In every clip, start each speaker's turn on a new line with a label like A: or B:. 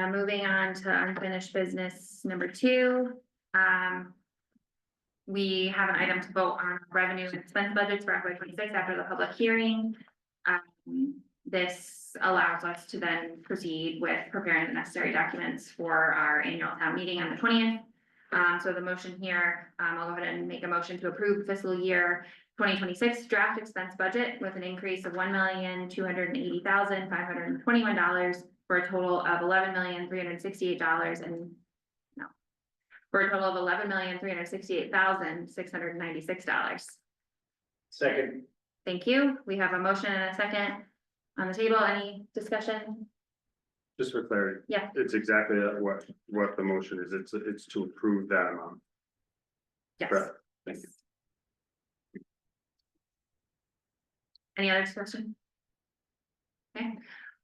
A: Uh, moving on to unfinished business number two, um. We have an item to vote on revenue and expense budgets for FY twenty-six after the public hearing. Um, this allows us to then proceed with preparing the necessary documents for our annual town meeting on the twentieth. Um, so the motion here, um, I'll go ahead and make a motion to approve fiscal year twenty twenty-six draft expense budget with an increase of one million, two hundred and eighty thousand, five hundred and twenty-one dollars for a total of eleven million, three hundred and sixty-eight dollars and no. For a total of eleven million, three hundred and sixty-eight thousand, six hundred and ninety-six dollars.
B: Second,
A: Thank you. We have a motion and a second on the table. Any discussion?
C: Just for clarity.
A: Yeah.
C: It's exactly what, what the motion is. It's, it's to approve that amount.
A: Yes.
C: Correct. Thank you.
A: Any other discussion? Okay,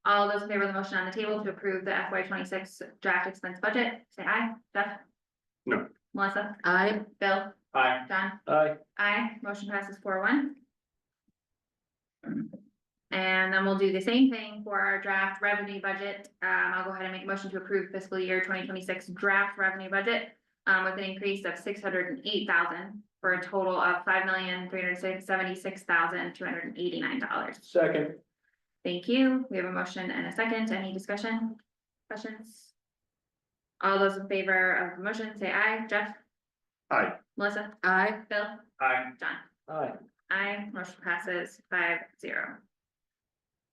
A: all those in favor of the motion on the table to approve the FY twenty-six draft expense budget, say aye. Jeff?
C: No.
A: Melissa?
D: I,
A: Bill?
B: aye.
A: John?
B: Aye.
A: Aye, motion passes four one. And then we'll do the same thing for our draft revenue budget. Um, I'll go ahead and make a motion to approve fiscal year twenty twenty-six draft revenue budget. um, with an increase of six hundred and eight thousand for a total of five million, three hundred and seventy-six thousand, two hundred and eighty-nine dollars.
B: Second,
A: Thank you. We have a motion and a second. Any discussion? Questions? All those in favor of the motion, say aye. Jeff?
C: Aye.
A: Melissa?
D: I,
A: Bill?
B: aye.
A: John?
B: Aye.
A: I motion passes five zero.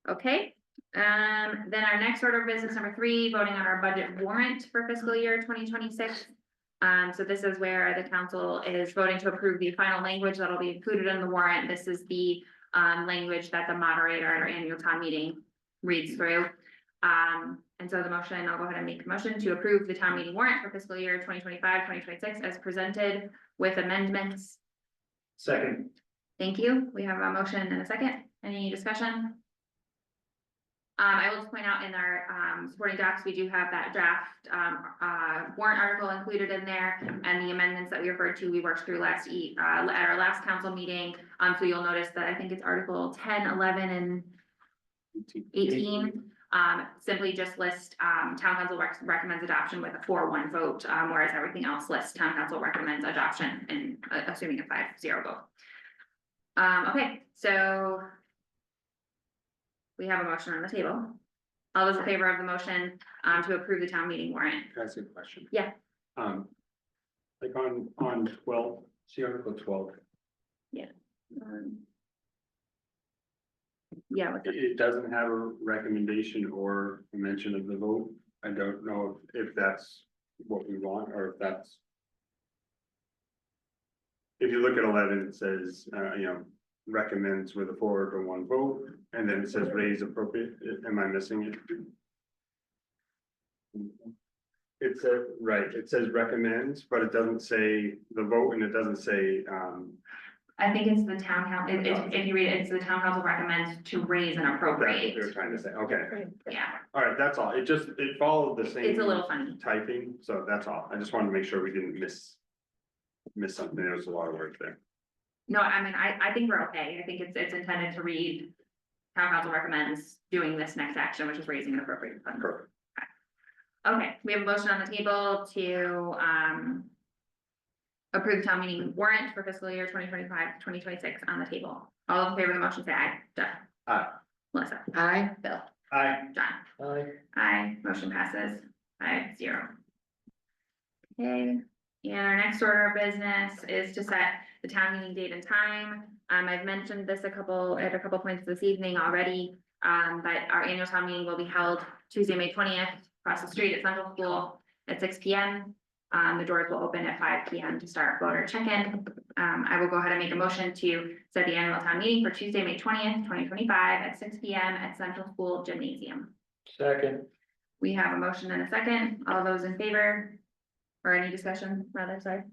A: Okay, um, then our next order of business, number three, voting on our budget warrant for fiscal year twenty twenty-six. Um, so this is where the council is voting to approve the final language that'll be included in the warrant. This is the um, language that the moderator at our annual town meeting reads through. Um, and so the motion, I'll go ahead and make a motion to approve the town meeting warrant for fiscal year 2025-2026 as presented with amendments
B: Second,
A: Thank you. We have a motion and a second. Any discussion? Um, I will just point out in our, um, supporting docs, we do have that draft, um, uh, warrant article included in there. And the amendments that we referred to, we worked through last e, uh, at our last council meeting. Um, so you'll notice that I think it's article 10, 11, and eighteen. Um, simply just list, um, town council rec- recommends adoption with a four one vote, um, whereas everything else lists town council recommends adoption and uh, assuming a five zero vote. Um, okay, so. We have a motion on the table. All those in favor of the motion, um, to approve the town meeting warrant?
C: Can I ask you a question?
A: Yeah.
C: Um, like on, on twelve, see article twelve,
A: Um, Yeah, with
C: it, it doesn't have a recommendation or a mention of the vote. I don't know if that's what we want or if that's. If you look at eleven, it says, uh, you know, recommends with a four to one vote, and then it says raise appropriate, uh, am I missing it? It says, right, it says recommends, but it doesn't say the vote and it doesn't say, um,
A: I think it's the town council, if, if you read it, it's the town council recommends to raise and
C: that's what they were
A: appropriate.
C: trying to say, okay.
A: Yeah,
C: All right, that's all. It just, it followed the same.
A: it's a little funny.
C: Typing, so that's all. I just wanted to make sure we didn't miss. Miss something. There was a lot of work there.
A: No, I mean, I, I think we're okay. I think it's, it's intended to read. Town council recommends doing this next action, which is raising an appropriate fund.
C: Perfect.
A: Okay, we have a motion on the table to, um. Approve town meeting warrant for fiscal year 2025-2026 on the table. All in favor of the motion, say aye. Jeff?
B: Aye.
A: Melissa?
D: I,
A: Bill?
B: aye.
A: John?
B: Aye.
A: Aye, motion passes five zero. Okay, and our next order of business is to set the town meeting date and time. Um, I've mentioned this a couple, at a couple points this evening already. Um, but our annual town meeting will be held Tuesday, May twentieth, across the street at Central School at six P M. Um, the doors will open at five P M to start voter check-in. Um, I will go ahead and make a motion to set the annual town meeting for Tuesday, May twentieth, twenty twenty-five at six P M at Central School Gymnasium.
B: Second,
A: We have a motion and a second. All those in favor? Or any discussion, rather, sorry.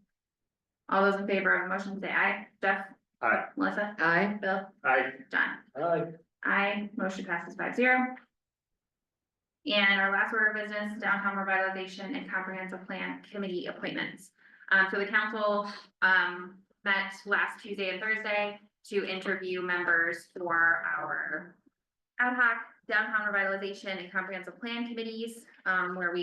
A: All those in favor of the motion, say aye. Jeff?
C: Aye.
A: Melissa?
D: I,
A: Bill?
C: Aye.
A: John?
B: aye.
A: Aye, motion passes five zero. And our last order of business, downtown revitalization and comprehensive plan committee appointments. Um, so the council, um, met last Tuesday and Thursday to interview members for our ad hoc downtown revitalization and comprehensive plan committees, um, where we